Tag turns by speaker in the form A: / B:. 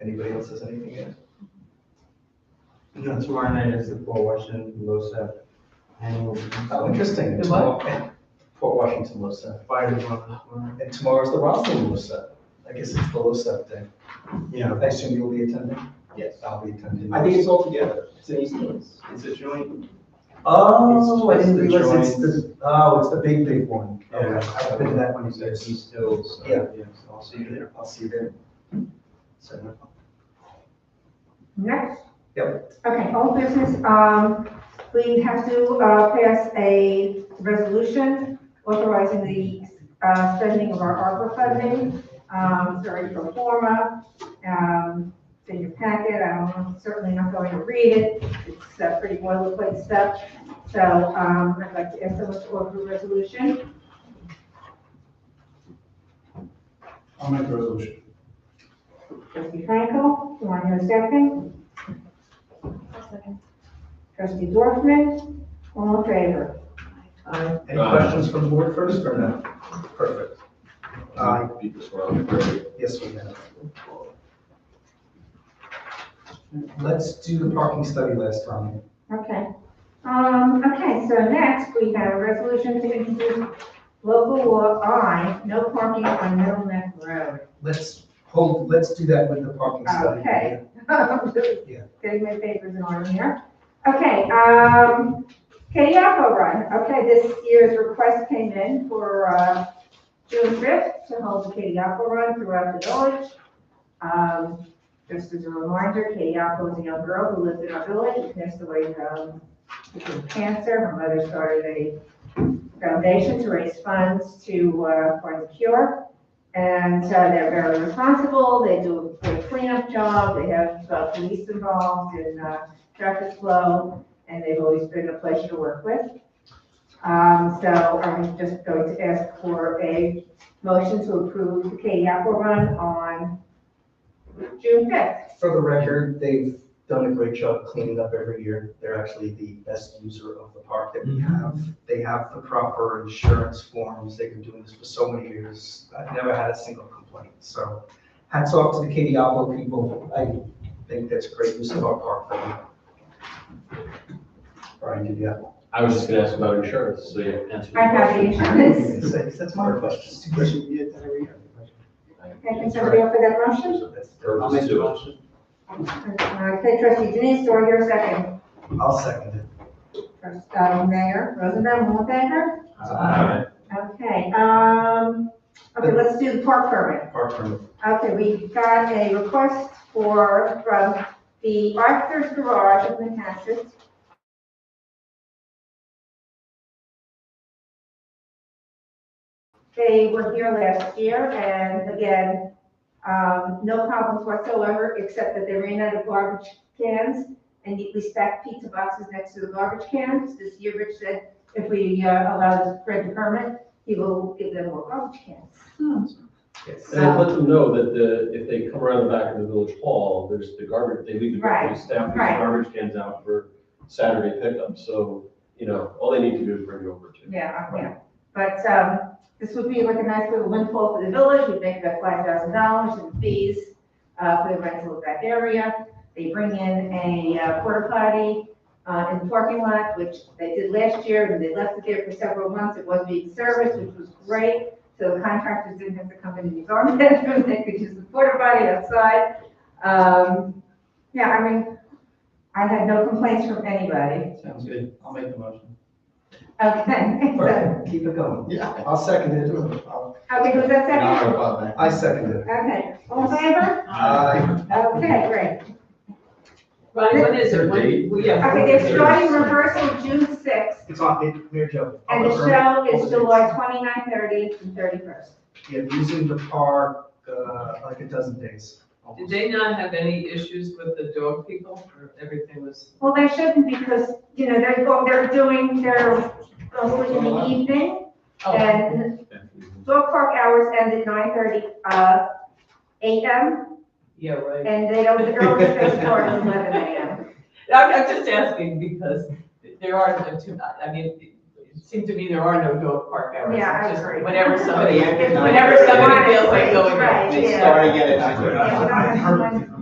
A: Anybody else has anything yet?
B: And then tomorrow night is the Port Washington LoSAP annual.
A: Oh, interesting. And
B: Good luck.
A: tomorrow- Port Washington LoSAP.
B: Fire department tomorrow.
A: And tomorrow's the Roslyn LoSAP. I guess it's the LoSAP day.
B: Yeah.
A: I assume you'll be attending?
B: Yes.
A: I'll be attending.
B: I think it's all together. It's an East, it's a joint.
A: Oh, I didn't
B: It's just
A: realize it's
B: the
A: the, oh, it's the big, big one.
B: Yeah.
A: Okay, I've been to that one,
B: It's
A: too.
B: at East Hills. so,
A: Yeah.
B: so I'll see you there.
A: I'll see you there. So,
C: Next.
A: Yep.
C: Okay, old business, um, we have to, uh, pass a resolution authorizing the, uh, spending of our ARPA funding. Um, it's already pro forma, um, it's in your packet, I'm certainly not going to read it, it's uh, pretty boilerplate stuff. So, um, I'd like to ask someone to offer a resolution.
D: I'll make the resolution.
C: Trustee Franco, do I hear a second? Trustee Dorfman, all in favor?
A: any
E: Aye.
A: questions from the board first or no? Perfect. Uh,
E: Beat this one up.
A: yes, we have. Let's do the parking study last time.
C: Okay. Um, okay, so next we have a resolution to introduce local law I, no parking on Middle Neck Road.
A: Let's hold, let's do that with the parking study.
C: Okay.
A: Yeah.
C: Getting my papers in order here. Okay, um, Katie Run. okay, this year's request came in for, uh, June fifth to hold the Katie Run throughout the village. Um, just as a reminder, Katie was a young girl who lived in our village, and passed away, um, with cancer. Her mother started a foundation to raise funds to, uh, for the cure. And uh, they're very responsible. They do a great cleanup job. They have uh, police involved in uh, traffic flow, and they've always been a pleasure to work with. Um, So I'm just going to ask for a motion to approve the Katy Apple Run on June 5th.
A: For the record, they've done a great job cleaning up every year. They're actually the best user of the park that we have. They have the proper insurance forms. They've been doing this for so many years. I've never had a single complaint. So hats off to the Kadiabo people. I think that's great use of our park. Brian, did you have?
E: I was just gonna ask about insurance, so you answered. the
C: I have the
E: question.
C: insurance.
A: That's my question.
C: Can somebody offer that motion?
E: Or
B: I'll
E: just
B: make the
E: do it.
B: motion.
C: Okay, trustee Denise, do I hear a second?
A: I'll second it.
C: Trustee uh, Mayor Rosenbaum, all in favor?
E: Aye.
C: Okay, um, okay, let's do the park permit.
A: Park permit.
C: Okay, we got a request for, from the Arthur's Garage of Manhasset They were here last year, and again, um, no problems whatsoever, except that they ran out of garbage cans, and we stacked pizza boxes next to the garbage cans. This year, Rich said, if we uh, allow this spread to permit, he will give them more garbage cans.
A: Yes.
E: And I'd let them know that the, if they come around the back of the village hall, there's the garbage, they leave the
C: Right,
E: garbage, staff leaves the
C: right.
E: garbage cans out for Saturday pickup, so, you know, all they need to do is bring it over to.
C: Yeah, yeah, but, um, this would be like a nice little windfall for the village, we make about five thousand dollars in fees, uh, for the rental of that area. They bring in a uh, porta potty, uh, in the parking lot, which they did last year, and they left it there for several months, it was being serviced, which was great. So the contractors didn't have to come in and use our bedroom, they could use the porta potty outside. Um, yeah, I mean, I had no complaints from anybody,
B: Sounds good. I'll make the motion.
C: okay. so-
A: Perfect. Keep it going.
B: Yeah.
A: I'll second it. I'll-
C: Okay, who's that second?
A: I second it.
C: Okay, all in favor? Uh,
A: Aye.
C: Okay, great.
F: Ronnie, what is it? When-
E: Date?
F: well, yeah.
C: Okay, they're starting rehearsal June sixth,
A: It's on, it, Mayor Joe.
C: and the show is July 29th, 30th, and thirty-first.
A: Yeah, using the park, uh, like a dozen days.
F: Did they not have any issues with the dog people or everything was?
C: Well, they shouldn't because, you know, they're, go- they're doing their, mostly in the evening,
F: Oh.
C: and dog park hours end at nine thirty, uh, AM,
F: Yeah, right.
C: and they, don't- the earliest they start is eleven AM.
F: I'm, I'm just asking because there are, no two- I mean, it seemed to me there are no dog park hours.
C: Yeah, I
F: It's just
C: agree.
F: Whenever somebody,
C: It's
F: whenever somebody feels like going.
C: Right,
F: they
C: yeah.
F: start.
B: at
C: Yeah, we don't have to
A: I
C: run
A: heard-